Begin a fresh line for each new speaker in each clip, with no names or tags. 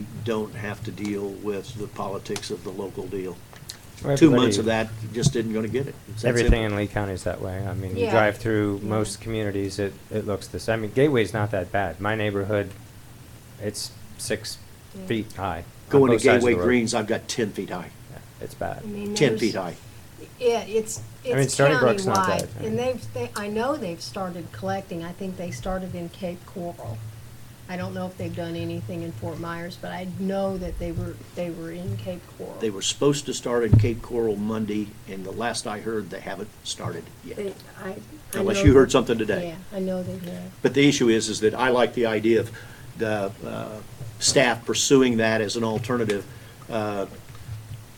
we don't have to deal with the politics of the local deal.
Well,
Two months
everybody-
of that, just isn't gonna get it. It's that
Everything
simple.
in Lee County is that way. I mean, you
Yeah.
drive through
Yeah.
most communities, it, it looks this, I mean, Gateway's not that bad. My neighborhood, it's six
Yeah.
feet high. on
Going to
both sides of the
Gateway
road.
Greens, I've got ten feet high,
Yeah, It's bad.
I mean,
ten
there's-
feet high.
Yeah, it's,
mean,
it's
Stony Brook's not that,
countywide,
I mean.
and they've, they, I know they've started collecting, I think they started in Cape Coral. I don't know if they've done anything in Fort Myers, but I know that they were, they were in Cape Coral.
They were supposed to start in Cape Coral Monday, and the last I heard, they haven't started yet.
They- I- I
Unless
know
you heard
that-
something today.
Yeah, I know they have.
But the issue is, is that I like the idea of the uh, staff pursuing that as an alternative. uh,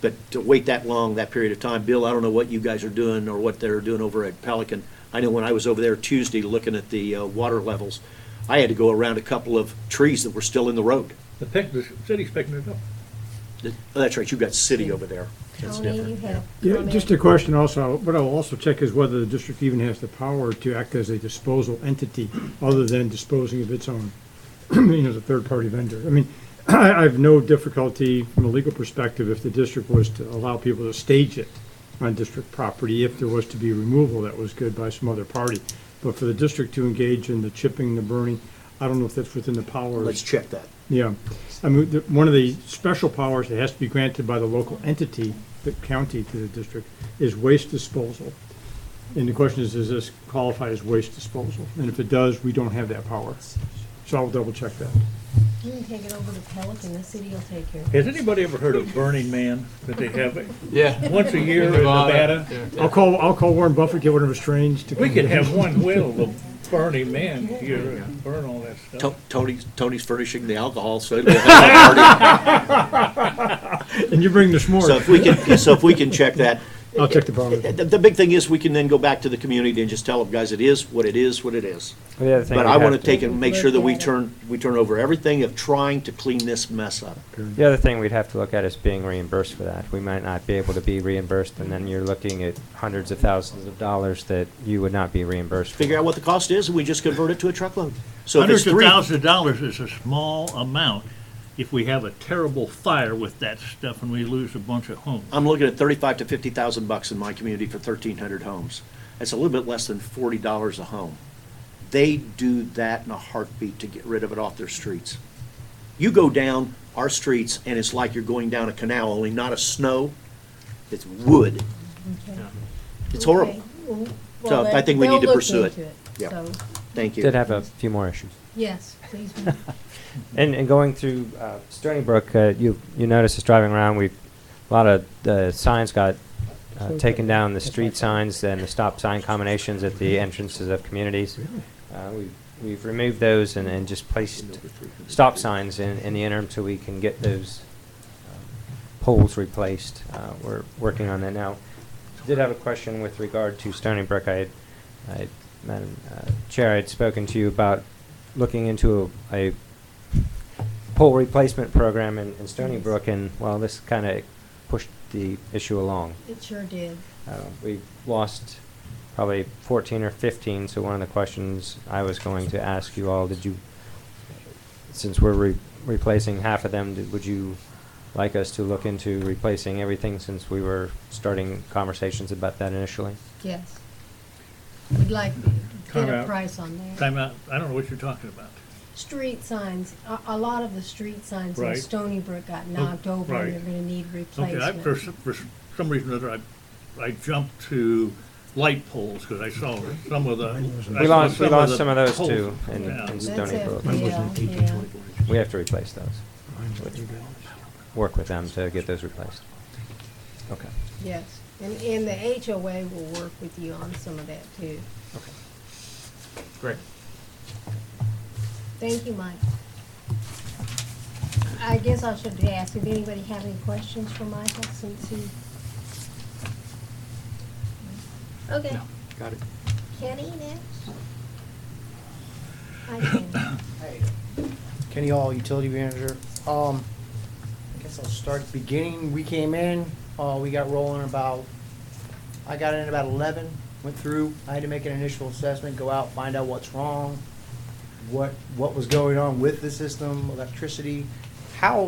But to wait that long, that period of time, Bill, I don't know what you guys are doing or what they're doing over at Pelican. I know when I was over there Tuesday looking at the uh, water levels, I had to go around a couple of trees that were still in the road.
The pick, the city's picking it up.
That- oh, That's right, you've got city over there. That's
Tony, you
different.
have.
Yeah,
comment?
just a question also, what I'll also check is whether the district even has the power to act as a disposal entity other than disposing of its own, you know, as a third-party vendor. I mean, I, I have no difficulty from a legal perspective if the district was to allow people to stage it on district property, if there was to be removal that was good by some other party. But for the district to engage in the chipping, the burning, I don't know if that's within the powers.
Let's check that.
Yeah, I mean, the- one of the special powers that has to be granted by the local entity, the county to the district, is waste disposal. And the question is, does this qualify as waste disposal? And if it does, we don't have that power. So I'll double check that.
You can take it over to Pelican, the city will take care of it.
Has anybody ever heard of Burning Man that they have
Yeah.
once a year in Nevada?
I'll call, I'll call Warren Buffett, get one of his trains to.
We could have one well of Burning Man here and burn all that stuff.
To- Tony's, Tony's furnishing the alcohol, so it'll be a party.
And you bring the
So if
s'mores.
we can, so if we can check that,
I'll check the power.
The, the big thing is, we can then go back to the community and just tell them, guys, it is what it is, what it is.
The other thing
But
we
I
have
want to
to-
take and make sure that we
Look at it.
turn, we turn over everything of trying to clean this mess up.
The other thing we'd have to look at is being reimbursed for that. We might not be able to be reimbursed, and then you're looking at hundreds of thousands of dollars that you would not be reimbursed for.
Figure out what the cost is, and we just convert it to a truckload. So if it's
Hundreds of
three,
thousands of dollars is a small amount if we have a terrible fire with that stuff and we lose a bunch of homes.
I'm looking at thirty-five to fifty thousand bucks in my community for thirteen hundred homes. That's a little bit less than forty dollars a home. They do that in a heartbeat to get rid of it off their streets. You go down our streets, and it's like you're going down a canal, only not a snow, it's wood. It's horrible.
Okay.
So
Well,
I think we need
they'll
to
look
pursue it.
into
Yeah.
So,
Thank you.
Did have a few more issues.
yes, please.
And, and going through uh, Stony Brook, uh, you you notice us driving around. We've a lot of the signs got uh, taken down. The street signs and the stop sign combinations at the entrances of communities. Uh, we we've removed those and, and just placed stop signs in, in the interim so we can get those um, poles replaced. Uh, we're working on that now. Did have a question with regard to Stony Brook. I, had- I Madam uh, Chair, I had spoken to you about looking into a, a pole replacement program in, in Stony Brook, and well, this kind of pushed the issue along.
It sure did.
Uh, we lost probably 14 or 15, so one of the questions I was going to ask you all, did you, since we're re- replacing half of them, did, would you like us to look into replacing everything since we were starting conversations about that initially?
Yes. We'd like to get
Time
a
out.
price on that.
Time out, I don't know what you're talking about.
Street signs, a, a lot of the street signs in
Right. Oh,
Stony Brook got knocked over
right.
and they're gonna need
Okay, I, for, s-
replacement.
for s- some reason or other, I, I jumped to light poles because I saw some of the. I
We
saw
lost, we lost
the
some of those
poles.
too in,
Yeah.
in
That's
Stony Brook.
a, yeah, yeah.
We have to replace those, work with them to get those replaced. Okay.
Yes, and, and the HOA will work with you on some of that too.
Great.
Thank you, Mike. I guess I should ask, if anybody have any questions for Michael since he? Okay,
Got it.
Kenny next? Hi, Kenny.
Kenny Hall, utility manager. Um, I guess I'll start at the beginning. We came in, uh, we got rolling about, I got in about eleven, went through. I had to make an initial assessment, go out, find out what's wrong, what, what was going on with the system, electricity, how